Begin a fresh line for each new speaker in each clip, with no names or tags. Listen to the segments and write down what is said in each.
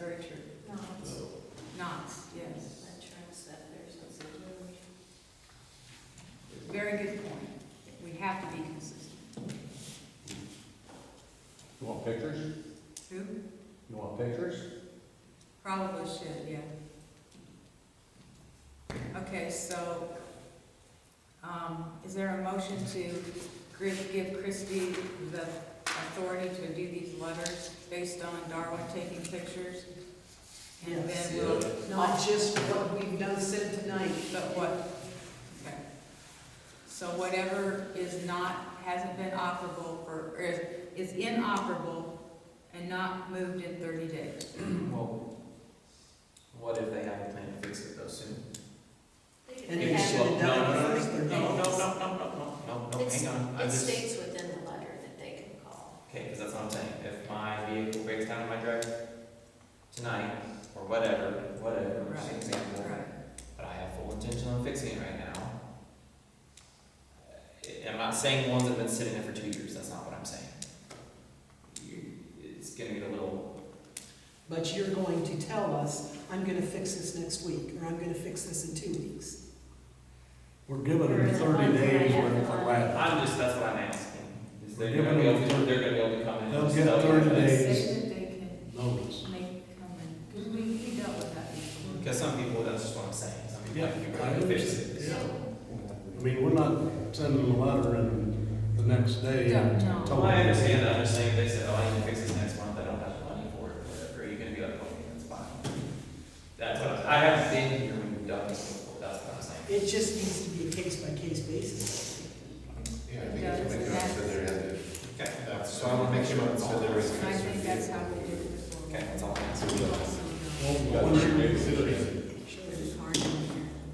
very true.
No, it's
Knots, yes.
that translators, that's it.
Very good point. We have to be consistent.
You want pictures?
Who?
You want pictures?
Probably should, yeah. Okay, so, um, is there a motion to gri- give Christie the authority to do these letters based on Darwin taking pictures? And then we'll,
Not just what we've done said tonight.
but what? Okay. So whatever is not, hasn't been operable for, or is is inoperable and not moved in thirty days.
Well, what if they have a plan to fix it though soon?
And
They
they
have-
should have done it first.
No,
they're
no, no,
not.
no, no, no, no, no, no,
It's-
hang on, I'm
It
just, okay,
states within the letter that they can call.
because that's what I'm saying, if my vehicle breaks down in my driveway tonight, or whatever, whatever, just an
Right,
example,
Right.
but I have full intention on fixing it right now. I- I'm not saying ones that have been sitting there for two years, that's not what I'm saying. You- It's gonna get a little,
But you're going to tell us, I'm gonna fix this next week, or I'm gonna fix this in two weeks.
We're giving them thirty days worth of latch.
I'm just, that's what I'm asking, is they're
We're
gonna be
giving
able to,
them-
they're gonna be able to come in. and
They'll
just
get
tell you
30
that it's-
days.
Say that they can
Notice.
make comment, because we, we dealt with that before.
Because some people, that's just what I'm saying, some people,
Yeah,
like, you
I
gotta fix it.
understand. I mean, we're not sending them a letter and the next day. and
Don't, no.
telling
Well, I
them-
understand that, I'm just saying, they said, oh, I need to fix this next month, I don't have the money for it, or whatever, you're gonna be like, okay, that's fine. That's what, I'm- I haven't been here when you've done this before, that's what I'm saying.
It just needs to be a case-by-case basis.
Yeah, I think it's when it comes to their end.
Okay,
So I want to make sure it's to their end.
I think that's how we did it before.
Okay, that's all I'm
We
asking.
also
Well,
Yeah,
when
sure,
you-
maybe.
know hard in here,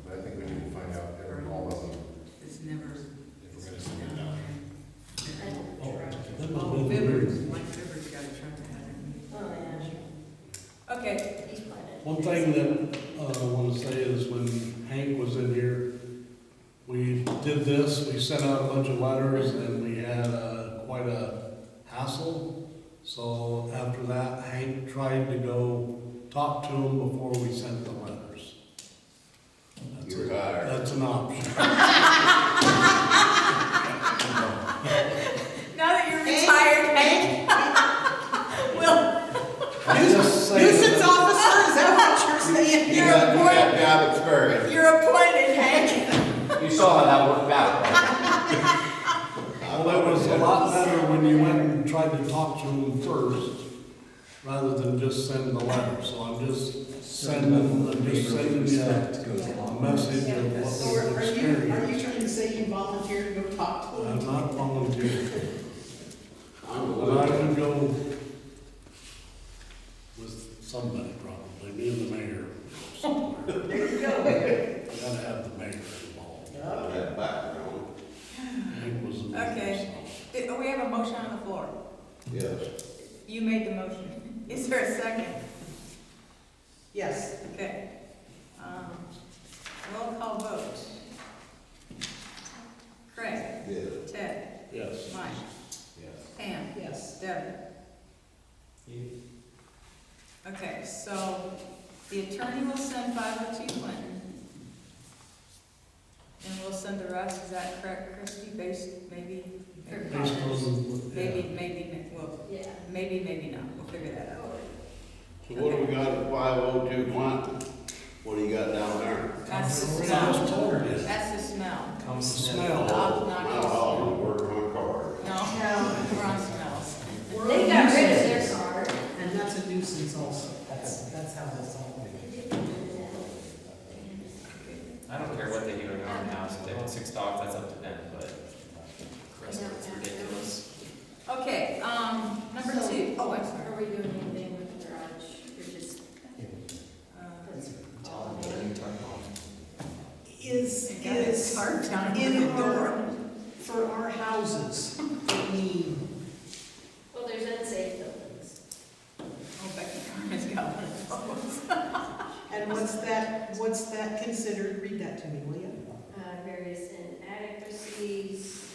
But I think we need to find out every all of them,
it's never.
if we're gonna send it out.
And-
Oh, that
Oh,
must've been the
Bibbers,
meeting.
Mike Bibbers got a truck to have it.
Oh, yeah.
Okay,
He's planning.
One thing that uh, I want to say is when Hank was in here, we did this, we sent out a bunch of letters and we had uh, quite a hassle. So after that, Hank tried to go talk to him before we sent the letters. That's
You
a-
are.
That's an option.
now that you're retired, Hank, we'll,
I'm just saying
Nuisance
that-
officer, is that what you're saying?
You got a bad job at Spur.
you're appointed, Hank.
You saw how that worked out, right?
Well, it was a lot better when you went and tried to talk to him first, rather than just send the letter. So I'm just sending, I'm just sending you a a message of
So
what
are
we've
are you, are
experienced.
you trying to say you volunteered to go talk to
I'm
them?
not volunteering. And I would go with somebody probably, me and the mayor. somewhere.
There you go.
I Gotta have the mayor involved.
Yeah.
That background.
Hank was the mayor,
Okay.
so.
Did- We have a motion on the floor.
Yes.
You made the motion. Is there a second?
Yes,
Okay. Um, Roll call vote. Craig,
Yes.
Ted,
Yes.
Mike,
Yes.
Pam,
yes.
Devin.
You-
Okay, so the attorney will send five oh two Clinton. And we'll send the rest, is that correct, Christie, based, maybe,
For
Based on, yeah.
maybe, maybe, well,
Yeah.
maybe, maybe not, we'll figure that out.
So what do we got at five oh two Quantum? What do you got down there?
That's the
We're not
smell,
just told it.
that's the smell.
Come
Smell.
sniff.
Knock,
Not all of them work on cars.
No, we're on smells.
They got rid of their card.
And that's a nuisance also, that's, that's how that's all.
I don't care what they do in our house, if they want six dogs, that's up to them, but the rest of it's ridiculous.
Okay, um, number
So-
two. Oh, I'm sorry.
Are we doing anything with the garage? We're just,
Uh,
that's
Tell
all
them,
there.
what are you talking about?
Is,
I got a
is
hard time with
in
the door.
our, for our houses, I mean,
Well, there's unsafe buildings.
Oh, Becky Carmen's got one of those.
and what's that, what's that considered, read that to me, will you?
Uh, various inadequacies,